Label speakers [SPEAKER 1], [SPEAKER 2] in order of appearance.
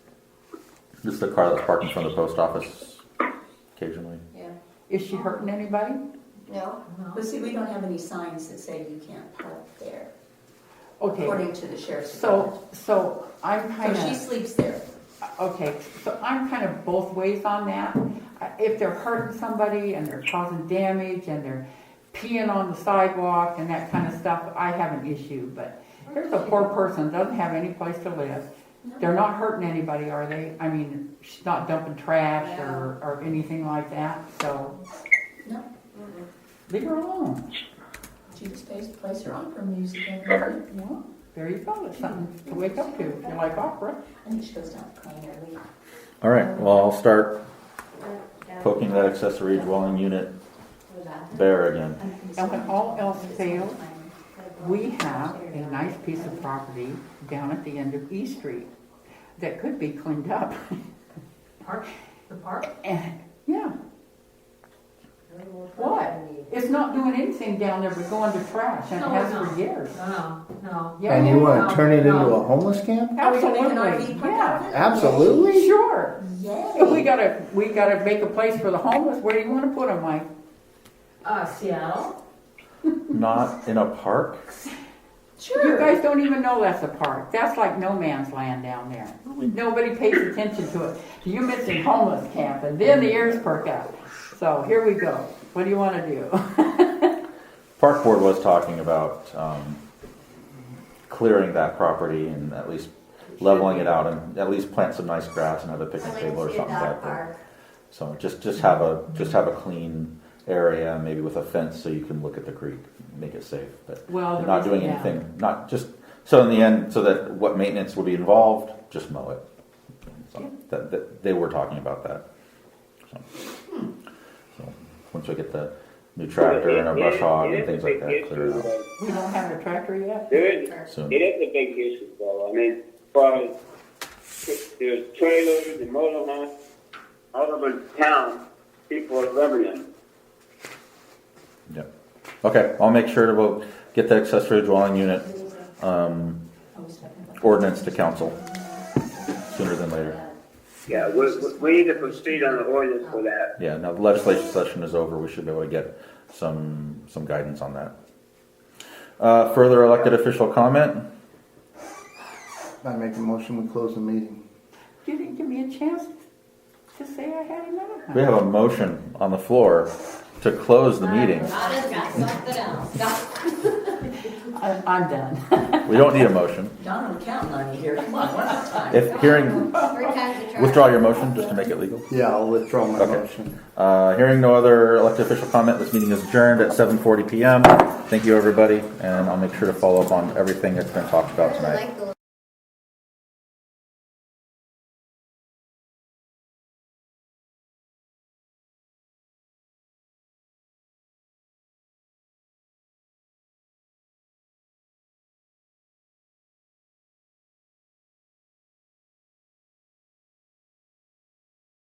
[SPEAKER 1] This is the car that's parked in front of the post office occasionally.
[SPEAKER 2] Yeah,
[SPEAKER 3] Is she hurting anybody?
[SPEAKER 2] no, but see, we don't have any signs that say you can't park there,
[SPEAKER 3] Okay,
[SPEAKER 2] according to the sheriff's department.
[SPEAKER 3] so, so I'm kind
[SPEAKER 2] So she
[SPEAKER 3] of,
[SPEAKER 2] sleeps there.
[SPEAKER 3] okay, so I'm kind of both ways on that. I- If they're hurting somebody and they're causing damage and they're peeing on the sidewalk and that kind of stuff, I have an issue, but here's a poor person, doesn't have any place to live. They're not hurting anybody, are they? I mean, she's not dumping trash or, or anything like that, so
[SPEAKER 2] No,
[SPEAKER 3] leave her alone.
[SPEAKER 2] she just plays, plays her opera music every night.
[SPEAKER 3] Well, there you go, it's something to wake up to, if you like opera.
[SPEAKER 2] I think she goes down playing every,
[SPEAKER 1] All right, well, I'll start poking that accessory dwelling unit there again.
[SPEAKER 3] And when all else fails, we have a nice piece of property down at the end of E Street that could be cleaned up.
[SPEAKER 4] Park, the park?
[SPEAKER 3] And, yeah, What? it's not doing anything down there but going to trash and it has for years.
[SPEAKER 4] No, no, Oh, no.
[SPEAKER 3] Yeah.
[SPEAKER 5] And you want
[SPEAKER 4] No,
[SPEAKER 5] to turn it into
[SPEAKER 4] no.
[SPEAKER 5] a homeless camp?
[SPEAKER 2] Are we gonna make an RV
[SPEAKER 3] Absolutely,
[SPEAKER 2] park out
[SPEAKER 3] yeah,
[SPEAKER 2] of it?
[SPEAKER 5] Absolutely.
[SPEAKER 3] sure. If we
[SPEAKER 2] Yay.
[SPEAKER 3] gotta, we gotta make a place for the homeless, where do you wanna put them, Mike?
[SPEAKER 4] Uh, Seattle?
[SPEAKER 1] Not in a park?
[SPEAKER 3] You
[SPEAKER 2] Sure.
[SPEAKER 3] guys don't even know that's a park, that's like no man's land down there. Nobody pays attention to it. You mentioned homeless camp and then the ears perk up. So here we go, what do you wanna do?
[SPEAKER 1] Park Board was talking about um, clearing that property and at least leveling it out and at least plant some nice grass and have a picnic table or something back there. So just, just have a, just have a clean area, maybe with a fence so you can look at the creek, make it safe, but
[SPEAKER 3] Well,
[SPEAKER 1] they're
[SPEAKER 3] the
[SPEAKER 1] not doing
[SPEAKER 3] reason- yeah.
[SPEAKER 1] anything, not just, so in the end, so that what maintenance would be involved, just mow it. So That, that, they were talking about that. So- So, once we get the new tractor and our brush hog and things like that cleared out.
[SPEAKER 3] We don't have a tractor yet?
[SPEAKER 6] There is,
[SPEAKER 1] Soon.
[SPEAKER 6] it is a big issue though. I mean, as far as there's trailers and motorhomes all over town, people are living in. them.
[SPEAKER 1] Yep. Okay, I'll make sure to, we'll get the accessory dwelling unit, um,
[SPEAKER 2] Oh,
[SPEAKER 1] ordinance to council sooner than later.
[SPEAKER 6] Yeah, we, we- we need to proceed on the ordinance for that.
[SPEAKER 1] Yeah, now the legislation session is over, we should be able to get some, some guidance on that. Uh, further elected official comment?
[SPEAKER 5] I make a motion, we close the meeting.
[SPEAKER 3] You didn't give me a chance to say I had another
[SPEAKER 1] We
[SPEAKER 3] one.
[SPEAKER 1] have a motion on the floor to close the meeting.
[SPEAKER 3] I- I'm done.
[SPEAKER 1] We don't need a motion.
[SPEAKER 2] Don, we're counting on you here. Come on, one more time.
[SPEAKER 1] If hearing, withdraw your motion just to make it legal.
[SPEAKER 5] Yeah, I'll withdraw my
[SPEAKER 1] Okay.
[SPEAKER 5] motion.
[SPEAKER 1] Uh, hearing no other elected official comment, this meeting is adjourned at seven forty PM. Thank you, everybody, and I'll make sure to follow up on everything that's been talked about tonight.
[SPEAKER 7] I like the